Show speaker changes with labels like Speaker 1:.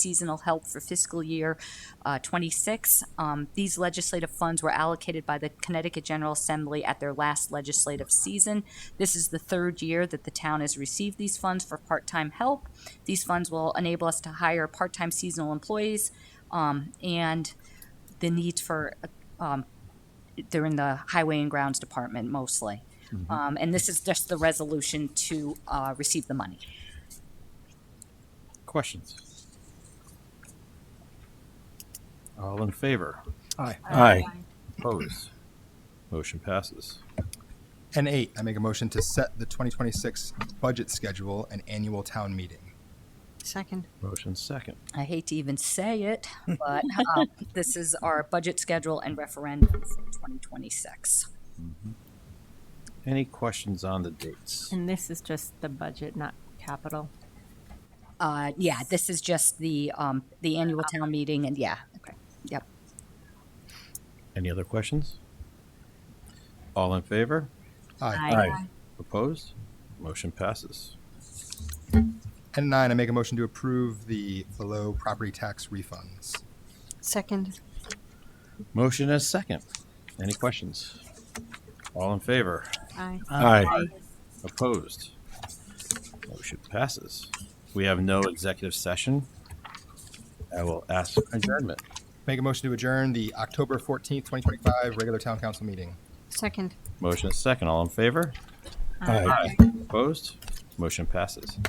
Speaker 1: seasonal help for fiscal year uh, 26. Um, These legislative funds were allocated by the Connecticut General Assembly at their last legislative season. This is the third year that the town has received these funds for part-time help. These funds will enable us to hire part-time seasonal employees, um, and the needs for, um, they're in the Highway and Grounds Department mostly. Um, And this is just the resolution to uh, receive the money.
Speaker 2: Questions? All in favor?
Speaker 3: Aye.
Speaker 4: Aye.
Speaker 2: Opposed? Motion passes.
Speaker 3: And eight, I make a motion to set the 2026 budget schedule and annual town meeting.
Speaker 4: Second.
Speaker 2: Motion second.
Speaker 1: I hate to even say it, but um, this is our budget schedule and referendum for 2026.
Speaker 2: Any questions on the dates?
Speaker 4: And this is just the budget, not capital.
Speaker 1: Uh, Yeah, this is just the, um, the annual town meeting, and yeah, okay, yep.
Speaker 2: Any other questions? All in favor?
Speaker 3: Aye.
Speaker 4: Aye.
Speaker 2: Opposed? Motion passes.
Speaker 3: And nine, I make a motion to approve the below property tax refunds.
Speaker 4: Second.
Speaker 2: Motion as second. Any questions? All in favor?
Speaker 4: Aye.
Speaker 2: Aye. Opposed? Motion passes. We have no executive session. I will ask for adjournment.
Speaker 3: Make a motion to adjourn the October 14th, 2025 regular town council meeting.
Speaker 4: Second.
Speaker 2: Motion is second. All in favor?
Speaker 4: Aye.
Speaker 2: Opposed? Motion passes.